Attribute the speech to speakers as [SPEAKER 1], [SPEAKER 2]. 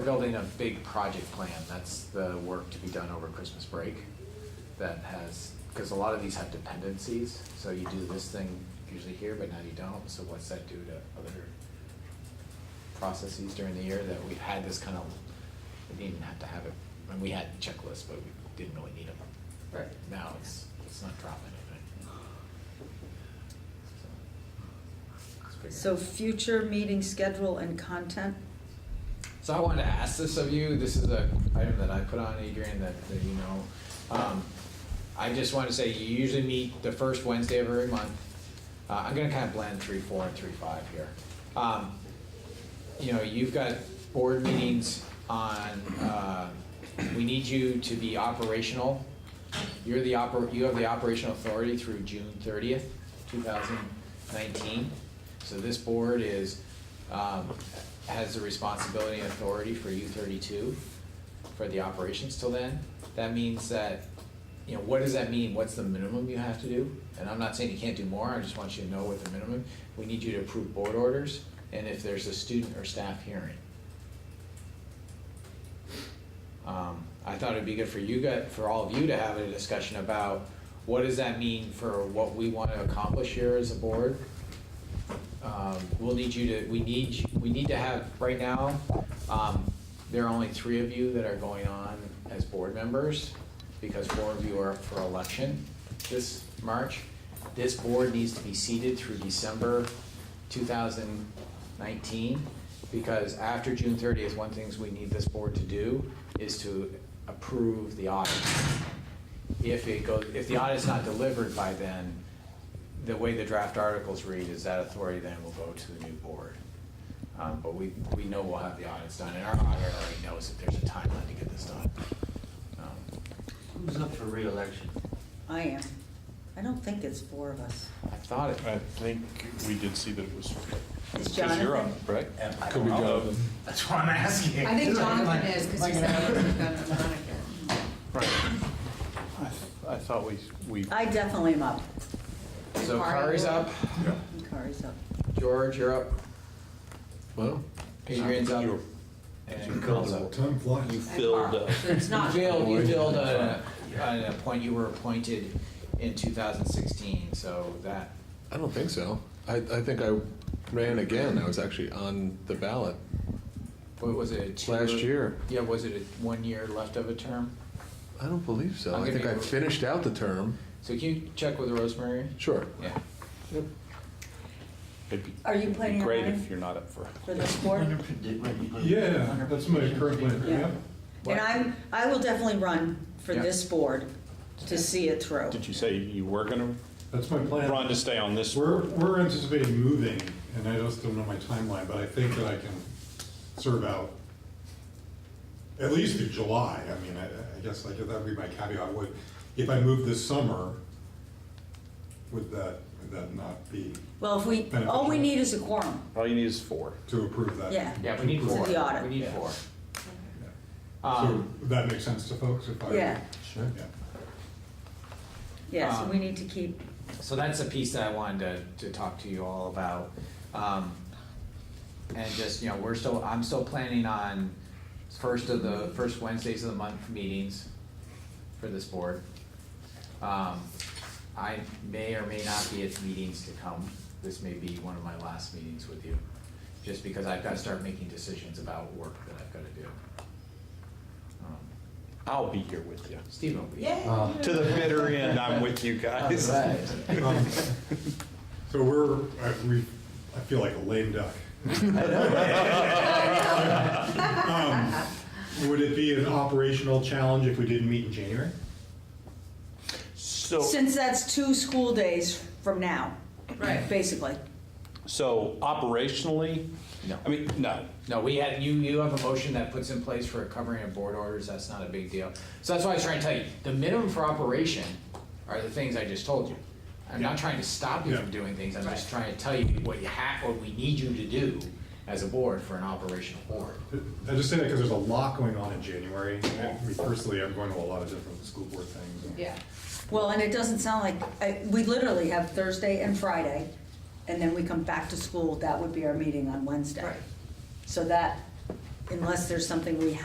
[SPEAKER 1] We're building a big project plan, that's the work to be done over Christmas break. That has, because a lot of these have dependencies, so you do this thing usually here, but now you don't, so what's that do to other processes during the year that we've had this kind of, we didn't have to have it, and we had checklists, but we didn't really need them.
[SPEAKER 2] Right.
[SPEAKER 1] Now it's, it's not dropping anything. So, let's figure
[SPEAKER 2] So
[SPEAKER 1] it out.
[SPEAKER 2] future meeting schedule and content?
[SPEAKER 1] So I wanted to ask this of you. This is a item that I put on Adrian that, that you know. Um, I just want to say you usually meet the first Wednesday of every month. Uh, I'm gonna kind of blend three, four, and three, five here. Um, you know, you've got board meetings on, uh, we need you to be operational. You're the oper, you have the operational authority through June thirtieth, two thousand nineteen. So this board is, um, has the responsibility and authority for U thirty-two for the operations till then. That means that, you know, what does that mean? What's the minimum you have to do? And I'm not saying you can't do more, I just want you to know what the minimum. We need you to approve board orders and if there's a student or staff hearing. Um, I thought it'd be good for you guys, for all of you to have a discussion about what does that mean for what we want to accomplish here as a board? Um, we'll need you to, we need, you- we need to have, right now, um, there are only three of you that are going on as board members because four of you are up for election this March. This board needs to be seated through December two thousand nineteen, because after June thirtieth, one things we need this board to do is to approve the audit. If it goes, if the audit's not delivered by then, the way the draft articles read is that authority then will go to the new board. Um, but we, we know we'll have the audits done, and our auditor already knows that there's a timeline to get this done. Um,
[SPEAKER 3] Who's up for reelection?
[SPEAKER 2] I am. I don't think it's four of us.
[SPEAKER 1] I thought it,
[SPEAKER 4] I think we did see that it was.
[SPEAKER 2] It's
[SPEAKER 4] because you're on,
[SPEAKER 2] Jonathan.
[SPEAKER 4] Right?
[SPEAKER 3] Am I
[SPEAKER 4] Could be
[SPEAKER 3] wrong?
[SPEAKER 4] Jonathan.
[SPEAKER 3] That's what I'm asking.
[SPEAKER 5] I think
[SPEAKER 3] Am
[SPEAKER 5] Jonathan is, because
[SPEAKER 3] am
[SPEAKER 5] he's
[SPEAKER 3] I gonna have-
[SPEAKER 5] the gun monitor.
[SPEAKER 4] Right. I th- I thought we, we,
[SPEAKER 2] I definitely am up.
[SPEAKER 1] so Kari's up,
[SPEAKER 2] Kari's up.
[SPEAKER 1] George, you're up,
[SPEAKER 6] Well,
[SPEAKER 1] Adrian's up,
[SPEAKER 4] You're-
[SPEAKER 1] and Cole's up.
[SPEAKER 6] time flies.
[SPEAKER 4] you filled
[SPEAKER 5] Mark.
[SPEAKER 4] up.
[SPEAKER 5] So it's
[SPEAKER 1] You
[SPEAKER 5] not,
[SPEAKER 1] filled, you filled a, a point, you were appointed in two thousand sixteen, so that,
[SPEAKER 6] I don't think so. I, I think I ran again. I was actually on the ballot.
[SPEAKER 1] what was it? a two-
[SPEAKER 6] Last year.
[SPEAKER 1] Yeah, was it a one year left of a term?
[SPEAKER 6] I don't believe so.
[SPEAKER 1] I'm
[SPEAKER 6] I think
[SPEAKER 1] gonna
[SPEAKER 6] I
[SPEAKER 1] be-
[SPEAKER 6] finished out the term.
[SPEAKER 1] So can you check with Rosemary?
[SPEAKER 6] Sure.
[SPEAKER 1] Yeah.
[SPEAKER 4] It'd be-
[SPEAKER 2] Are you
[SPEAKER 4] it'd be
[SPEAKER 2] planning on
[SPEAKER 4] Great
[SPEAKER 2] running?
[SPEAKER 4] if you're not up for.
[SPEAKER 2] For this
[SPEAKER 3] I
[SPEAKER 2] board?
[SPEAKER 3] wonder if it did- when you put-
[SPEAKER 7] Yeah, that's my current plan,
[SPEAKER 2] Yeah.
[SPEAKER 7] yeah.
[SPEAKER 1] What?
[SPEAKER 2] And I'm, I will definitely run for
[SPEAKER 1] Yeah.
[SPEAKER 2] this board to see it through.
[SPEAKER 4] Did you say you were gonna
[SPEAKER 7] That's my plan.
[SPEAKER 4] run to stay on this?
[SPEAKER 7] We're, we're anticipating moving, and I just don't know my timeline, but I think that I can serve out at least through July. I mean, I, I guess I guess that would be my caveat. Would, if I move this summer, would that, would that not be
[SPEAKER 2] Well, if we, all we need is a quorum.
[SPEAKER 4] All you need is four.
[SPEAKER 7] to approve that?
[SPEAKER 2] Yeah.
[SPEAKER 1] Yeah, we need
[SPEAKER 2] This is
[SPEAKER 1] four.
[SPEAKER 2] the audit.
[SPEAKER 1] We need four.
[SPEAKER 7] So
[SPEAKER 1] Um,
[SPEAKER 7] would that makes sense to folks if I?
[SPEAKER 2] Yeah.
[SPEAKER 7] Sure.
[SPEAKER 2] Yeah, so
[SPEAKER 4] Ah.
[SPEAKER 1] Um,
[SPEAKER 2] we need to keep,
[SPEAKER 1] So that's a piece that I wanted to, to talk to you all about. Um, and just, you know, we're still, I'm still planning on first of the, first Wednesdays of the month meetings for this board. Um, I may or may not be at meetings to come. This may be one of my last meetings with you, just because I've gotta start making decisions about work that I've gotta do. Um,
[SPEAKER 4] I'll be here with you.
[SPEAKER 1] Stephen will be.
[SPEAKER 4] To the bitter end, I'm with you guys.
[SPEAKER 1] Alright.
[SPEAKER 7] Um, So we're, I, we, I feel like a lame duck. Um, Would it be an operational challenge if we didn't meet in January?
[SPEAKER 4] So,
[SPEAKER 2] since that's two school days from now,
[SPEAKER 5] right.
[SPEAKER 2] basically.
[SPEAKER 4] so operationally,
[SPEAKER 1] No.
[SPEAKER 4] I mean, no.
[SPEAKER 1] No, we had, you, you have a motion that puts in place for covering of board orders, that's not a big deal. So that's why I was trying to tell you, the minimum for operation are the things I just told you. I'm not trying to stop you from
[SPEAKER 7] Yeah.
[SPEAKER 1] doing things, I'm just trying to tell you what you have, what we need you to do as a board for an operational board.
[SPEAKER 7] I just say that because there's a lot going on in January. and me Personally, I'm going to a lot of different school board things. and-
[SPEAKER 5] Yeah.
[SPEAKER 2] Well, and it doesn't sound like, I- we literally have Thursday and Friday, and then we come back to school, that would be our meeting on Wednesday.
[SPEAKER 5] Right.
[SPEAKER 2] So that, unless there's something we